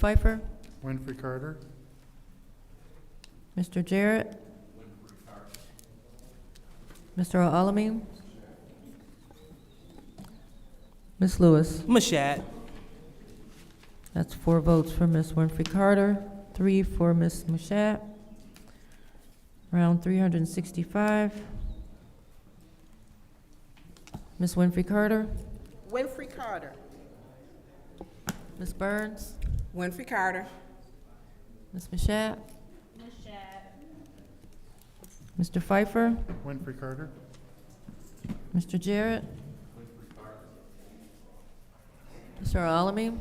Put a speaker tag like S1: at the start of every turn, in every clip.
S1: Pfeiffer,
S2: Winfrey Carter,
S1: Mr. Jarrett. Mr. Alamin. Ms. Lewis,
S3: Mashat.
S1: that's four votes for Ms. Winfrey Carter, three for Ms. Mashat. Round three hundred and sixty-five. Ms. Winfrey Carter,
S3: Winfrey Carter.
S1: Ms. Burns,
S3: Winfrey Carter.
S1: Ms. Mashat. Mr. Pfeiffer.
S2: Winfrey Carter,
S1: Mr. Jarrett? Mr. Alamin?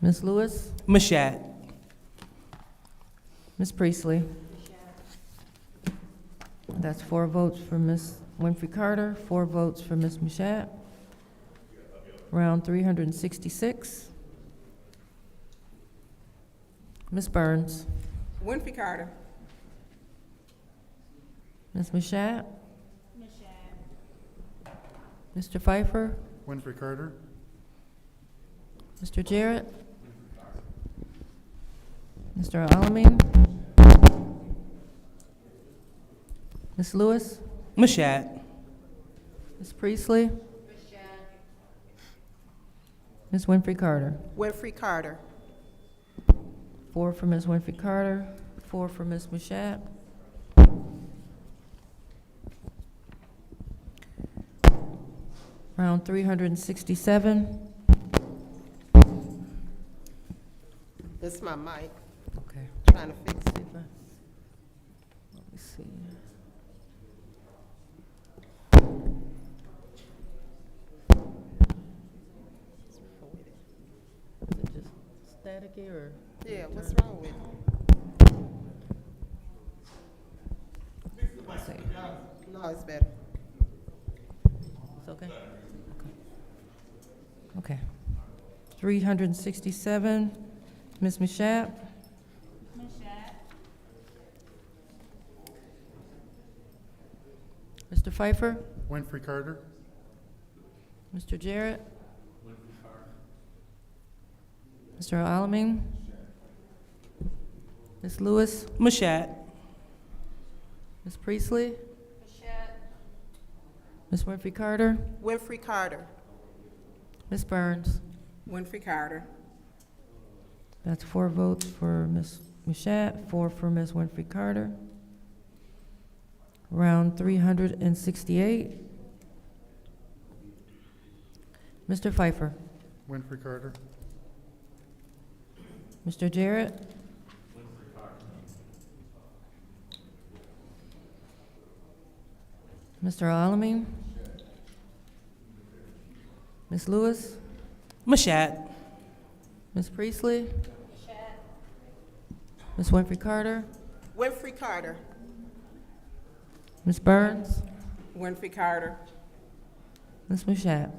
S1: Ms. Lewis?
S3: Mashat.
S1: Ms. Priestley? That's four votes for Ms. Winfrey Carter, four votes for Ms. Mashat. Round three hundred and sixty-six. Ms. Burns?
S3: Winfrey Carter.
S1: Ms. Mashat? Mr. Pfeiffer?
S2: Winfrey Carter,
S1: Mr. Jarrett? Mr. Alamin? Ms. Lewis?
S3: Mashat.
S1: Ms. Priestley? Ms. Winfrey Carter?
S3: Winfrey Carter.
S1: Four for Ms. Winfrey Carter, four for Ms. Mashat. Round three hundred and sixty-seven.
S4: This is my mic,
S1: Okay.
S4: trying to fix it.
S1: Let me see. Is it just staticky or?
S4: Yeah, what's wrong with it?
S1: let's see.
S4: No, it's better.
S1: It's okay? Okay. Three hundred and sixty-seven, Ms. Mashat? Mr. Pfeiffer?
S2: Winfrey Carter,
S1: Mr. Jarrett? Mr. Alamin? Ms. Lewis?
S3: Mashat.
S1: Ms. Priestley? Ms. Winfrey Carter?
S4: Winfrey Carter.
S1: Ms. Burns?
S4: Winfrey Carter.
S1: That's four votes for Ms. Mashat, four for Ms. Winfrey Carter. Round three hundred and sixty-eight. Mr. Pfeiffer,
S2: Winfrey Carter,
S1: Mr. Jarrett. Mr. Alamin. Ms. Lewis,
S3: Mashat.
S1: Ms. Priestley. Ms. Winfrey Carter,
S4: Winfrey Carter.
S1: Ms. Burns.
S4: Winfrey Carter.
S1: Ms. Mashat.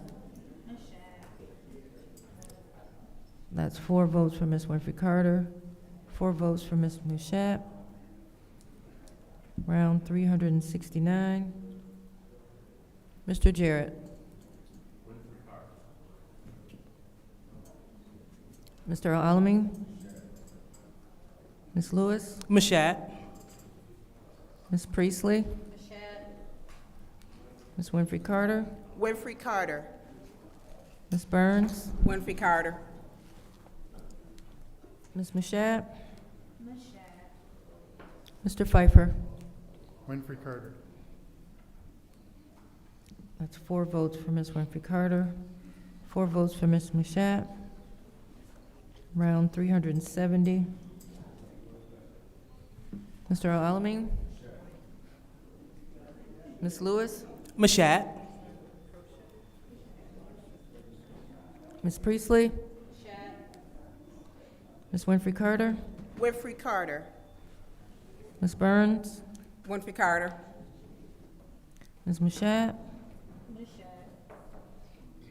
S1: That's four votes for Ms. Winfrey Carter, four votes for Ms. Mashat. Round three hundred and sixty-nine. Mr. Jarrett. Mr. Alamin. Ms. Lewis.
S3: Mashat.
S1: Ms. Priestley. Ms. Winfrey Carter.
S4: Winfrey Carter.
S1: Ms. Burns.
S4: Winfrey Carter.
S1: Ms. Mashat? Mr. Pfeiffer?
S2: Winfrey Carter,
S1: That's four votes for Ms. Winfrey Carter, four votes for Ms. Mashat. Round three hundred and seventy. Mr. Alamin? Ms. Lewis?
S3: Mashat.
S1: Ms. Priestley? Ms. Winfrey Carter?
S4: Winfrey Carter.
S1: Ms. Burns?
S4: Winfrey Carter.
S1: Ms. Mashat?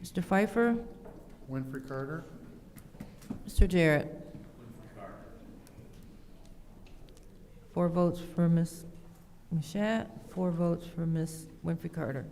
S1: Mr. Pfeiffer?
S2: Winfrey Carter,
S1: Mr. Jarrett. Four votes for Ms. Mashat, four votes for Ms. Winfrey Carter.